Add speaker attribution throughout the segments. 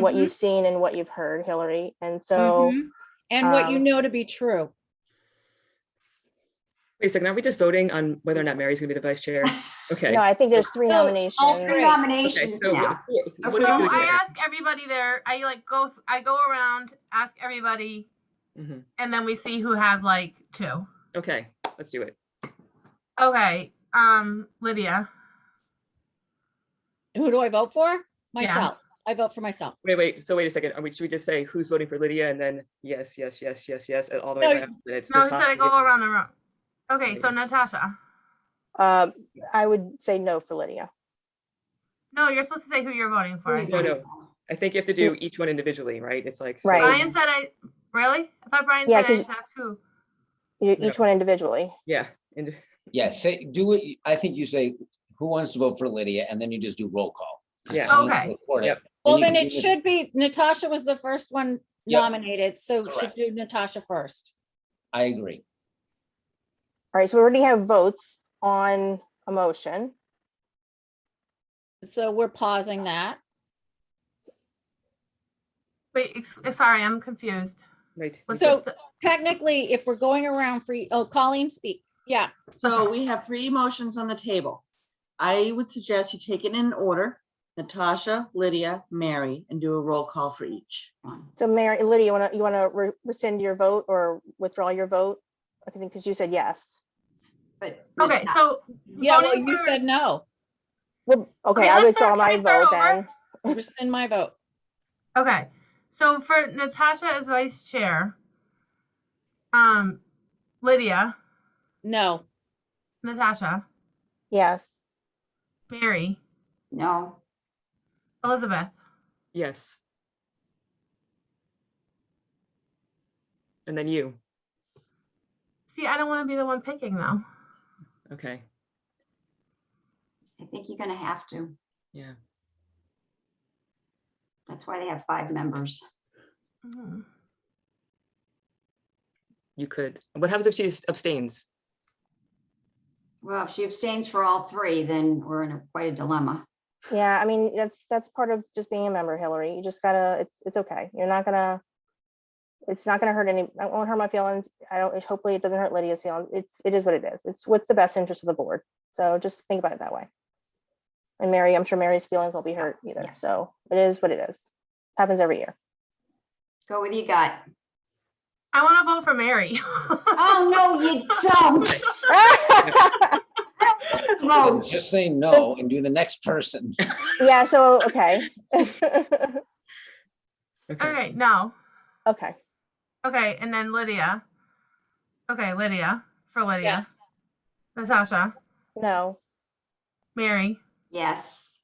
Speaker 1: what
Speaker 2: Mm-hmm.
Speaker 3: Mhm.
Speaker 1: you've seen and what you've heard, Hillary. And so
Speaker 3: Mhm. And what you
Speaker 1: um,
Speaker 3: know to be true.
Speaker 4: Wait a second, are we just voting on whether or not Mary's gonna be the vice chair? Okay.
Speaker 1: no, I think there's three
Speaker 3: So, all
Speaker 1: nominations.
Speaker 3: three
Speaker 4: Okay,
Speaker 5: nominations
Speaker 4: so
Speaker 5: now.
Speaker 4: what-
Speaker 5: Okay.
Speaker 4: what
Speaker 2: So
Speaker 4: do we do
Speaker 2: I
Speaker 4: here?
Speaker 2: ask everybody there. I like go. th- I go around, ask everybody,
Speaker 4: Mhm.
Speaker 2: and then we see who has like two.
Speaker 4: Okay, let's do it.
Speaker 2: Okay. Um, Lydia.
Speaker 3: Who do I vote for? Myself. I vote for myself.
Speaker 4: Wait, wait, so wait a second, are we, should we just say who's voting for Lydia and then yes, yes, yes, yes, yes, and all the way
Speaker 3: No,
Speaker 4: around? and it's
Speaker 2: No, he said I
Speaker 4: Natasha
Speaker 2: go
Speaker 4: again?
Speaker 2: around the room. Okay, so Natasha.
Speaker 1: Um, I would say no for Lydia.
Speaker 2: No, you're supposed to say who you're voting for. I
Speaker 4: No,
Speaker 2: think.
Speaker 4: no, I think you have to do each one individually, right? It's like. so-
Speaker 1: Right.
Speaker 2: Brian said I. Really? I thought Brian
Speaker 1: Yeah,
Speaker 2: said I
Speaker 1: 'cause-
Speaker 2: just asked who.
Speaker 1: You- e-, Each one individually.
Speaker 4: Yeah, and
Speaker 6: Yeah, say, do it, I think you say, who wants to vote for Lydia? And then you just do roll call.
Speaker 4: yeah,
Speaker 2: Oh.
Speaker 6: And you
Speaker 2: Okay.
Speaker 6: record it.
Speaker 4: Yep.
Speaker 3: Well,
Speaker 6: you
Speaker 3: then
Speaker 6: can
Speaker 3: it
Speaker 6: do the-
Speaker 3: should be Natasha was the first one
Speaker 6: Yep.
Speaker 3: nominated, so should
Speaker 6: Correct.
Speaker 3: do Natasha first.
Speaker 6: I agree.
Speaker 1: All right, so we already have votes on a motion.
Speaker 3: So we're pausing that.
Speaker 2: Wait, ex- eh, sorry, I'm confused.
Speaker 4: right.
Speaker 2: What's
Speaker 3: So-
Speaker 2: this? th-
Speaker 3: Technically, if we're going around for, oh, Colleen speak. Yeah,
Speaker 7: So we have three motions on the table. I would suggest you take it in order, Natasha, Lydia, Mary, and do a roll call for each one.
Speaker 1: So Mary, Lydia, you wanna, you wanna re- rescind your vote or withdraw your vote? I think, because you said yes.
Speaker 7: But
Speaker 2: Okay, so
Speaker 3: yeah, well,
Speaker 2: voting
Speaker 3: you
Speaker 2: for-
Speaker 3: said no,
Speaker 1: Well, okay,
Speaker 2: Okay,
Speaker 1: I
Speaker 2: let's
Speaker 1: withdraw
Speaker 2: start- can
Speaker 1: my
Speaker 2: we start
Speaker 1: vote
Speaker 2: over?
Speaker 1: then.
Speaker 3: rescind my vote.
Speaker 2: Okay, so for Natasha as vice chair, um, Lydia,
Speaker 3: No,
Speaker 2: Natasha,
Speaker 1: Yes,
Speaker 2: Mary,
Speaker 5: No,
Speaker 2: Elizabeth,
Speaker 4: Yes. And then you,
Speaker 2: See, I don't want to be the one picking though.
Speaker 4: okay,
Speaker 5: I think you're gonna have to.
Speaker 4: yeah.
Speaker 5: That's why they have five members.
Speaker 2: Mhm.
Speaker 4: You could, what happens if she abstains?
Speaker 5: Well, if she abstains for all three, then we're in a- quite a dilemma.
Speaker 1: yeah, I mean, that's, that's part of just being a member, Hillary. You just gotta, it's, it's okay. You're not gonna, it's not gonna hurt any, I won't hurt my feelings. I don't, hopefully it doesn't hurt Lydia's feelings. It's, it is what it is. It's what's the best interest of the board. So just think about it that way. And Mary, I'm sure Mary's feelings won't be hurt either.
Speaker 5: yeah.
Speaker 1: So it is what it is. Happens every year.
Speaker 5: Go with your gut.
Speaker 2: I want to vote for Mary.
Speaker 5: Oh, no, you don't.
Speaker 3: Oh.
Speaker 6: Then
Speaker 5: Vote.
Speaker 6: Just say no and do the next person.
Speaker 1: Yeah, so, okay.
Speaker 4: Okay,
Speaker 2: okay, no.
Speaker 1: Okay,
Speaker 2: Okay, and then Lydia. Okay, Lydia for Lydia.
Speaker 3: yes,
Speaker 2: Natasha,
Speaker 1: no,
Speaker 2: Mary,
Speaker 5: Yes.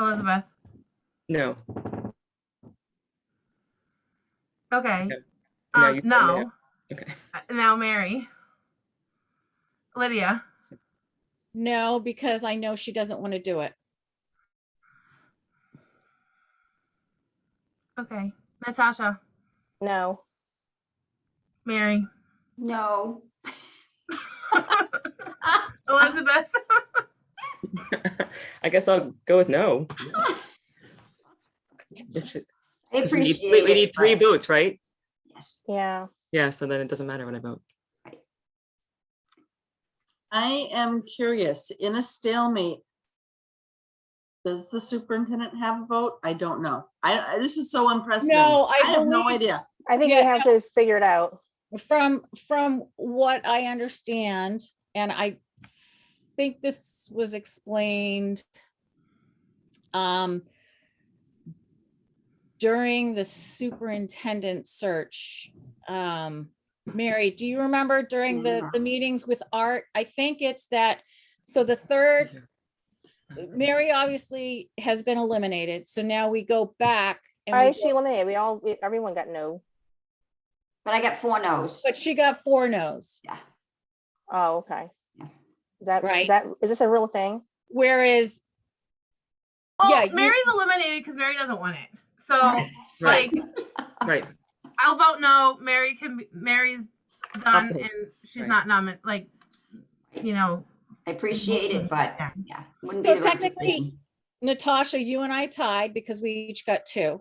Speaker 2: Elizabeth.
Speaker 4: no,
Speaker 2: Okay.
Speaker 4: Okay, now
Speaker 2: Um,
Speaker 4: you-
Speaker 2: no.
Speaker 4: okay.
Speaker 2: Uh, Now Mary. Lydia.
Speaker 3: no, because I know she doesn't want to do it.
Speaker 2: Okay. Natasha.
Speaker 1: no.
Speaker 2: Mary.
Speaker 5: No.
Speaker 2: Elizabeth.
Speaker 4: I guess I'll go with no. If she-
Speaker 5: I
Speaker 4: 'cause we need-
Speaker 5: appreciate
Speaker 4: wait,
Speaker 5: it.
Speaker 4: We need three
Speaker 5: but-
Speaker 4: votes, right?
Speaker 5: Yes.
Speaker 1: Yeah,
Speaker 4: Yeah, so then it doesn't matter when I vote.
Speaker 7: I am curious, in a stalemate, does the superintendent have a vote? I don't know. I, I- this is so unprecedented.
Speaker 3: No, I
Speaker 7: have no
Speaker 3: believe-
Speaker 7: idea.
Speaker 1: I think we
Speaker 3: Yeah,
Speaker 1: have to figure it out.
Speaker 3: From, from what I understand, and I think this was explained um, during the superintendent search. Um, Mary, do you remember during the, the meetings with Art? I think it's that, so the third Mary obviously has been eliminated, so now we go back. and we
Speaker 1: I,
Speaker 3: go-
Speaker 1: she eliminated, we all, we- everyone got no.
Speaker 5: But I got four no's.
Speaker 3: But she got four no's,
Speaker 5: Yeah.
Speaker 1: Oh, okay.
Speaker 5: Yeah.
Speaker 1: Is that,
Speaker 3: Right.
Speaker 1: is that, is this a real thing?
Speaker 3: whereas,
Speaker 2: Oh,
Speaker 3: Yeah, you-
Speaker 2: Mary's eliminated because Mary doesn't want it. So
Speaker 3: Oh.
Speaker 4: Right,
Speaker 2: like
Speaker 5: Ah.
Speaker 4: right.
Speaker 2: I'll vote no. Mary can be, Mary's done
Speaker 4: Okay.
Speaker 2: and she's
Speaker 4: Right.
Speaker 2: not nominated. Like you know,
Speaker 5: I appreciate it, but
Speaker 2: Yeah.
Speaker 5: yeah. wouldn't
Speaker 3: So
Speaker 5: be the right
Speaker 3: technically-
Speaker 5: decision.
Speaker 3: Natasha, you and I tied because we each got two.